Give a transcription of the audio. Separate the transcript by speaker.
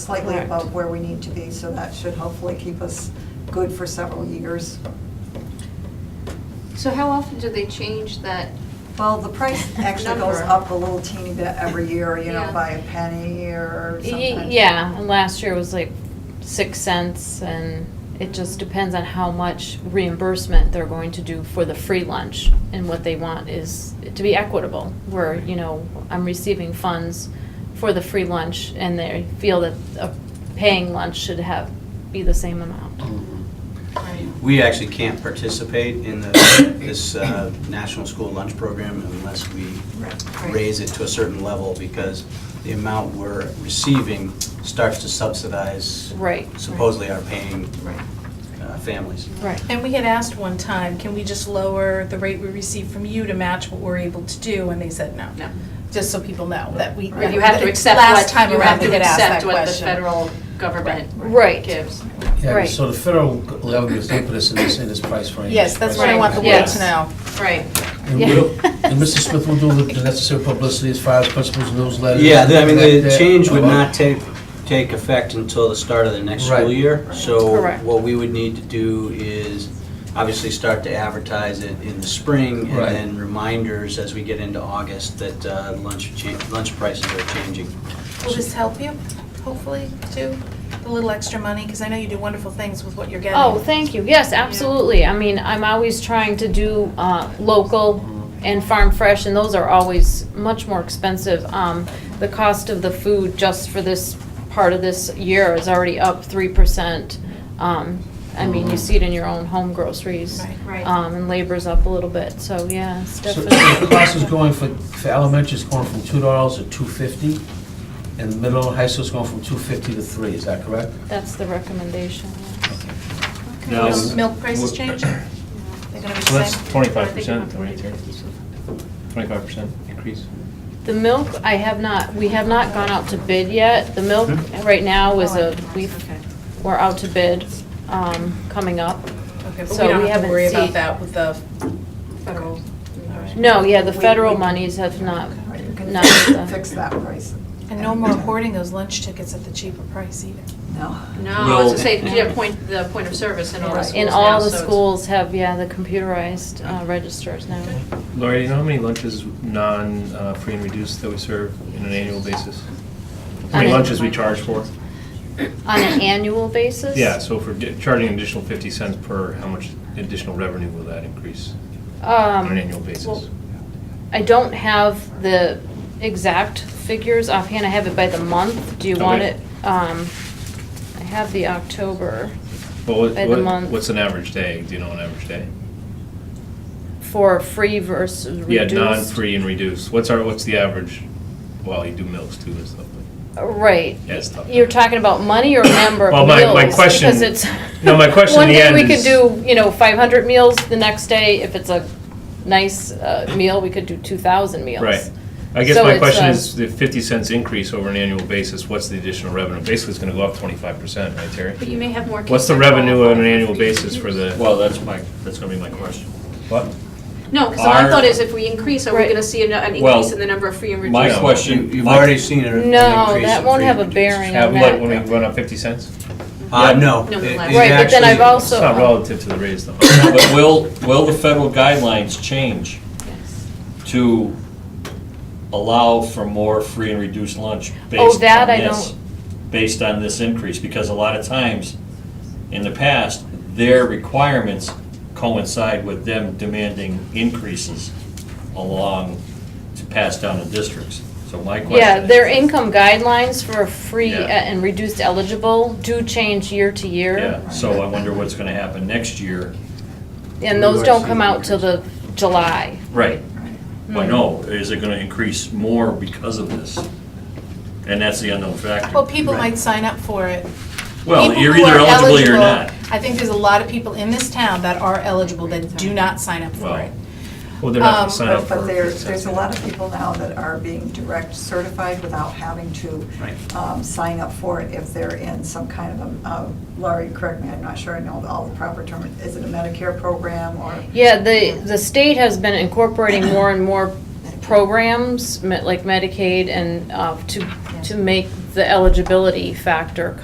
Speaker 1: slightly
Speaker 2: Correct.
Speaker 1: above where we need to be, so that should hopefully keep us good for several years.
Speaker 3: So how often do they change that?
Speaker 1: Well, the price actually goes
Speaker 3: Number.
Speaker 1: up a little teeny bit every year, you know,
Speaker 3: Yeah.
Speaker 1: by a penny or
Speaker 2: Y-
Speaker 1: something.
Speaker 2: Yeah, and last year was like six cents, and it just depends on how much reimbursement they're going to do for the free lunch. And what they want is it to be equitable, where, you know, I'm receiving funds for the free lunch, and they feel that a paying lunch should have, be the same amount.
Speaker 4: We actually can't participate in the, this uh, National School Lunch Program unless we raise it to a certain level because the amount we're receiving starts to subsidize
Speaker 2: Right.
Speaker 4: supposedly our paying uh, families.
Speaker 2: Right.
Speaker 5: And we had asked one time, can we just lower the rate we receive from you to match what we're able to do? And they said no.
Speaker 3: No.
Speaker 5: Just so people know that we.
Speaker 3: Or you have to accept what,
Speaker 5: Last time
Speaker 3: you
Speaker 5: around,
Speaker 3: have
Speaker 5: we
Speaker 3: to
Speaker 5: had asked that
Speaker 3: accept what the
Speaker 5: question.
Speaker 3: federal government
Speaker 2: Right.
Speaker 3: gives.
Speaker 6: Yeah,
Speaker 2: Right.
Speaker 6: but so the federal government is not put us in this, in this price range.
Speaker 5: Yes, that's what I want the world
Speaker 2: Yes.
Speaker 5: to know.
Speaker 3: Right.
Speaker 6: And we'll- and Mr. Smith will do the necessary publicity as far as principals knows letters.
Speaker 4: Yeah, uh, the- I mean, the
Speaker 6: that- uh,
Speaker 4: change would not take, take effect until the start of the next
Speaker 6: Right.
Speaker 4: school year. So
Speaker 2: Correct.
Speaker 4: what we would need to do is obviously start to advertise it in the spring and
Speaker 6: Right.
Speaker 4: then reminders as we get into August that uh, lunch, cha- lunch prices are changing.
Speaker 5: Will this help you, hopefully, too? A little extra money, because I know you do wonderful things with what you're getting.
Speaker 2: Oh, thank you, yes, absolutely. I mean, I'm always trying to do uh, local
Speaker 3: Mm-hmm.
Speaker 2: and farm fresh, and those are always much more expensive. Um, The cost of the food just for this part of this year is already up 3%. Um, I mean, you see it in your own home groceries.
Speaker 5: Right.
Speaker 3: Mm-hmm. Right.
Speaker 2: Um, And labor's up a little bit, so yeah, it's
Speaker 6: So
Speaker 2: definitely.
Speaker 6: The cost is going for, for elementary is going from two dollars to two fifty, and the middle and high school is going from two fifty to three, is that correct?
Speaker 2: That's the recommendation, yes.
Speaker 7: Now,
Speaker 5: Milk- Milk prices
Speaker 7: wh-
Speaker 5: change? They're gonna be
Speaker 7: So
Speaker 5: the
Speaker 7: that's
Speaker 5: same?
Speaker 7: twenty-five percent, right there, twenty-five percent increase.
Speaker 2: The milk, I have not, we have not gone out to bid yet. The milk
Speaker 7: Hmm?
Speaker 2: right now is
Speaker 3: Oh,
Speaker 2: a, we've We're out to bid um, coming up.
Speaker 5: Okay, but
Speaker 2: So we
Speaker 5: we don't have to
Speaker 2: haven't
Speaker 5: worry
Speaker 2: see-
Speaker 5: about that with the
Speaker 3: Federal.
Speaker 2: No, yeah, the
Speaker 5: We-
Speaker 2: federal
Speaker 5: we-
Speaker 2: monies have not,
Speaker 1: Right, we can
Speaker 2: not, uh,
Speaker 1: fix that price.
Speaker 5: And no more hoarding those lunch tickets at the cheaper price either.
Speaker 1: No.
Speaker 3: No, I was
Speaker 4: Well-
Speaker 3: gonna say, yeah, point, the point of service in all the
Speaker 1: Right.
Speaker 3: schools
Speaker 2: and all
Speaker 3: now,
Speaker 2: the
Speaker 3: so it's-
Speaker 2: schools have, yeah, the computerized uh, registers now.
Speaker 7: Lori, do you know how many lunches non-free and reduced that we serve on an annual basis? How many
Speaker 2: On a-
Speaker 7: lunches we charge for?
Speaker 2: On an annual basis?
Speaker 7: Yeah, so if we're di- charging an additional fifty cents per, how much additional revenue will that increase on an annual basis?
Speaker 2: Um, I don't have the exact figures offhand. I have it by the month. Do you want
Speaker 7: Okay.
Speaker 2: it? um, I have the October
Speaker 7: But what-
Speaker 2: by the
Speaker 7: what-
Speaker 2: month.
Speaker 7: What's an average day? Do you know an average day?
Speaker 2: for free versus
Speaker 7: Yeah,
Speaker 2: reduced.
Speaker 7: non-free and reduced. What's our, what's the average? Well, you do milks too and stuff, but.
Speaker 2: Right.
Speaker 7: Yeah, it's tough.
Speaker 2: You're talking about money or number of
Speaker 7: Well,
Speaker 2: meals?
Speaker 7: my- my question-
Speaker 2: Because it's.
Speaker 7: no, my question
Speaker 2: One
Speaker 7: in the
Speaker 2: day
Speaker 7: end
Speaker 2: we could
Speaker 7: is-
Speaker 2: do, you know, five hundred meals, the next day, if it's a nice uh, meal, we could do two thousand meals.
Speaker 7: Right. I guess
Speaker 2: So
Speaker 7: my
Speaker 2: it's,
Speaker 7: question
Speaker 2: uh,
Speaker 7: is, the fifty cents increase over an annual basis, what's the additional revenue? Basically, it's gonna go up twenty-five percent, right,
Speaker 3: But
Speaker 7: Terry?
Speaker 3: you may have more. kids
Speaker 7: What's the
Speaker 3: that
Speaker 7: revenue
Speaker 3: qualify
Speaker 7: on an
Speaker 3: for
Speaker 7: annual
Speaker 3: free and
Speaker 7: basis for
Speaker 3: reduced.
Speaker 7: the?
Speaker 8: Well, that's my, that's gonna be my question.
Speaker 7: What?
Speaker 3: No, because my
Speaker 8: Our-
Speaker 3: thought is if we increase, are we
Speaker 2: Right.
Speaker 3: gonna see an- an
Speaker 8: Well,
Speaker 3: increase in the number of free and reduced?
Speaker 8: My
Speaker 7: No.
Speaker 8: question.
Speaker 4: You- You've
Speaker 8: my-
Speaker 4: already seen it.
Speaker 2: No, that won't have a bearing
Speaker 7: Uh,
Speaker 2: on
Speaker 7: like when we
Speaker 2: that.
Speaker 7: run up fifty cents?
Speaker 4: Uh, no.
Speaker 3: No,
Speaker 4: it- it
Speaker 3: less.
Speaker 2: Right, but then I've
Speaker 4: actually-
Speaker 7: It's
Speaker 2: also. um,
Speaker 7: not relative to the raise though.
Speaker 8: But will, will the federal guidelines change to allow for more free and reduced lunch
Speaker 2: Oh,
Speaker 8: based
Speaker 2: that
Speaker 8: on
Speaker 2: I
Speaker 8: this? Based on this increase, because a lot of times, in the past, their requirements coincide with them demanding increases along to pass down to districts. So my question is.
Speaker 2: Yeah, their income guidelines for free
Speaker 8: Yeah.
Speaker 2: and reduced eligible do change year to year.
Speaker 8: Yeah, so I wonder what's gonna happen next year.
Speaker 2: And those don't come out till the July.
Speaker 8: Right. But
Speaker 5: Hmm.
Speaker 8: no, is it gonna increase more because of this? And that's the unknown factor.
Speaker 5: Well, people might sign up for it.
Speaker 8: Well,
Speaker 5: People
Speaker 8: you're
Speaker 5: who
Speaker 8: either
Speaker 5: are
Speaker 8: eligible or you're not.
Speaker 5: I think there's a lot of people in this town that are eligible that do not sign up for
Speaker 8: Well,
Speaker 5: it.
Speaker 7: Well, they're not
Speaker 5: Um,
Speaker 7: gonna sign up
Speaker 1: But
Speaker 7: for
Speaker 1: but there,
Speaker 7: 50 cents.
Speaker 1: there's a lot of people now that are being direct certified without having to
Speaker 4: Right.
Speaker 1: um, sign up for it if they're in some kind of a, uh, Laurie, correct me, I'm not sure I know all the proper term, is it a Medicare program or?
Speaker 2: Yeah, the, the state has been incorporating more and more programs, me- like Medicaid and, uh, to, to make the eligibility factor